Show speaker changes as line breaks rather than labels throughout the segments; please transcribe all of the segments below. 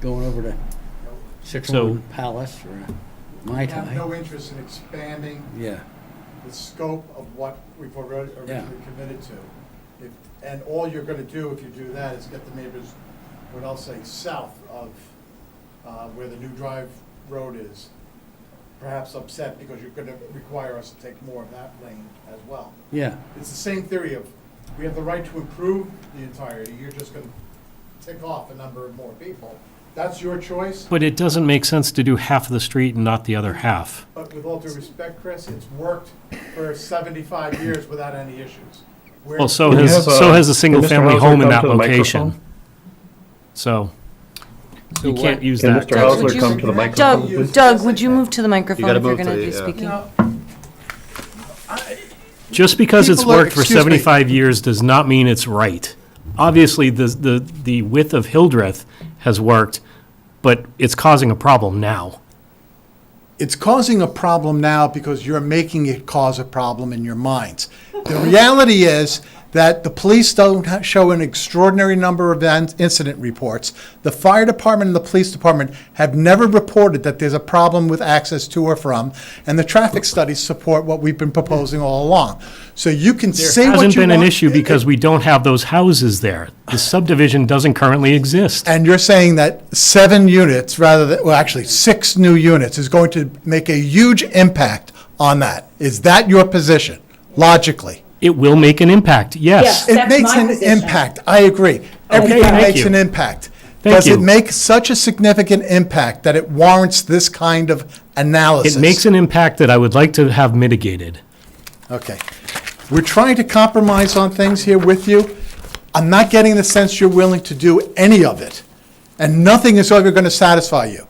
going over to Citroen Palace or Mai
We have no
Tai.
interest in expanding
Yeah,
the scope of what we've already
Yeah.
originally committed to. If- And all you're gonna do if you do that is get the neighbors, what I'll say, south of uh, where the new drive road is, perhaps upset because you're gonna require us to take more of that lane as well.
yeah,
It's the same theory of, we have the right to improve the entirety, you're just gonna tick off a number of more people. That's your choice,
But it doesn't make sense to do half of the street and not the other half.
but with all due respect, Chris, it's worked for seventy-five years without any issues. We're-
Well, so
Can you
has,
have, uh,
so has a
can Mr.
single-family
Hauser
home in
come
that
to the
location.
microphone?
So you
what-
can't use
Can
that.
Mr.
Doug, would
Hausler
you-
come to the microphone,
Doug,
please?
Doug, would you move to the
You
microphone
gotta
if you're
move to
gonna
the,
be
uh,
You
speaking?
know,
Just because it's
People are-
worked for
excuse me.
75 years does not mean it's right. Obviously, the, the, the width of Hildreth has worked, but it's causing a problem now.
it's causing a problem now because you're making it cause a problem in your minds. The reality is that the police don't ha- show an extraordinary number of in- incident reports. The fire department and the police department have never reported that there's a problem with access to or from, and the traffic studies support what we've been proposing all along. So you can say
There
what you want.
hasn't been an issue because we don't have those houses there. The subdivision doesn't currently exist.
And you're saying that seven units, rather than, well, actually, six new units is going to make a huge impact on that. Is that your position, logically?
It will make an impact, yes.
Yes.
It
That's
makes
my
an
position.
impact, I agree. Everything
thank
makes
you.
an impact.
Thank
Does it
you.
make such a significant impact that it warrants this kind of analysis?
It makes an impact that I would like to have mitigated.
Okay. We're trying to compromise on things here with you. I'm not getting the sense you're willing to do any of it, and nothing is ever going to satisfy you.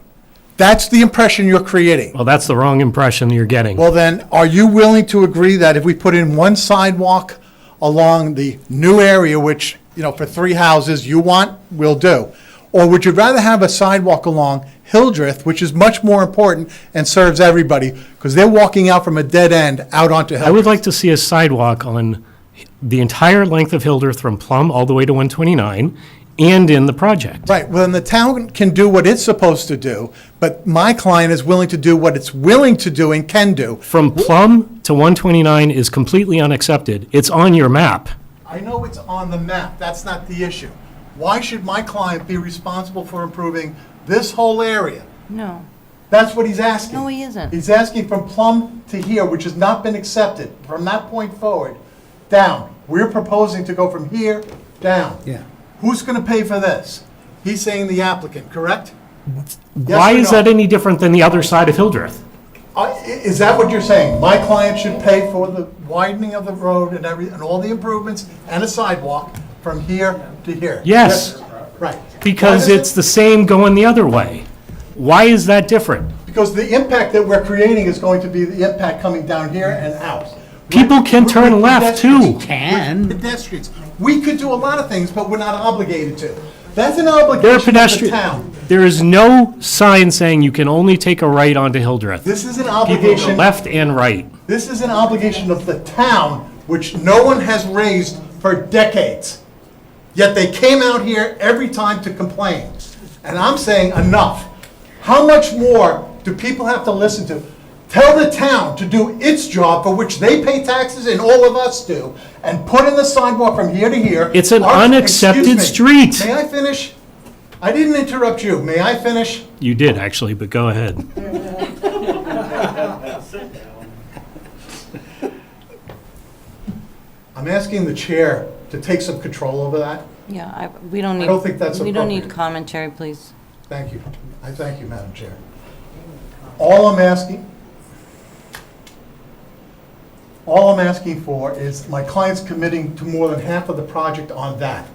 That's the impression you're creating.
Well, that's the wrong impression you're getting.
Well, then, are you willing to agree that if we put in one sidewalk along the new area, which, you know, for three houses you want, we'll do? Or would you rather have a sidewalk along Hildreth, which is much more important and serves everybody, because they're walking out from a dead end out onto
I
Hildreth?
would like to see a sidewalk on the entire length of Hildreth from Plum all the way to 129 and in the project.
Right, well, then the town can do what it's supposed to do, but my client is willing to do what it's willing to do and can do.
From Plum to 129 is completely unaccepted. It's on your map.
I know it's on the map, that's not the issue. Why should my client be responsible for improving this whole area?
No.
That's what he's asking.
No, he isn't.
He's asking from Plum to here, which has not been accepted, from that point forward, down. We're proposing to go from here down.
Yeah.
Who's gonna pay for this? He's saying the applicant, correct? Yes
Why
or
is
no?
that any different than the other side of Hildreth?
I- i- Is that what you're saying? My client should pay for the widening of the road and every, and all the improvements and a sidewalk from here to here?
Yes.
Right.
Because
Why does
it's
it-
the same going the other way. Why is that different?
Because the impact that we're creating is going to be the impact coming down here and out.
People can
With-
turn
with
left
pedestrians.
too.
can,
pedestrians. We could do a lot of things, but we're not obligated to. That's an
There are
obligation of the
pedestrian,
town.
there is no sign saying you can only take a right onto Hildreth.
This is an
People go
obligation,
left and right.
this is an obligation of the town, which no one has raised for decades. Yet they came out here every time to complain. And I'm saying enough. How much more do people have to listen to? Tell the town to do its job for which they pay taxes and all of us do, and put in the sidewalk from here to here.
It's an
Our-
unaccepted
excuse me.
street.
May I finish? I didn't interrupt you. May I finish?
You did, actually, but go ahead.
I'm asking the chair to take some control over that.
Yeah, I, we don't need.
don't think that's
We don't need
appropriate.
commentary, please.
Thank you. I thank you, Madam Chair. All I'm asking, all I'm asking for is my client's committing to more than half of the project on that.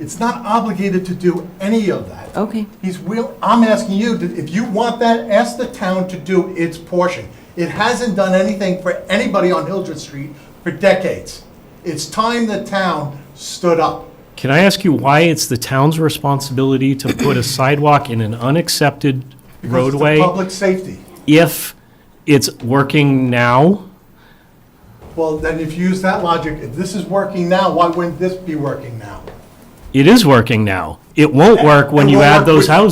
It's not obligated to do any of that.
Okay.
He's will, I'm asking you, to- if you want that, ask the town to do its portion. It hasn't done anything for anybody on Hildreth Street for decades. It's time the town stood up.
Can I ask you why it's the town's responsibility to put a sidewalk in an unaccepted
because it's the
roadway
Public safety.
if it's working now?
Well, then if you use that logic, if this is working now, why wouldn't this be working now?
It is working now. It won't work when
It
you
won't
add
work
those
with-
houses.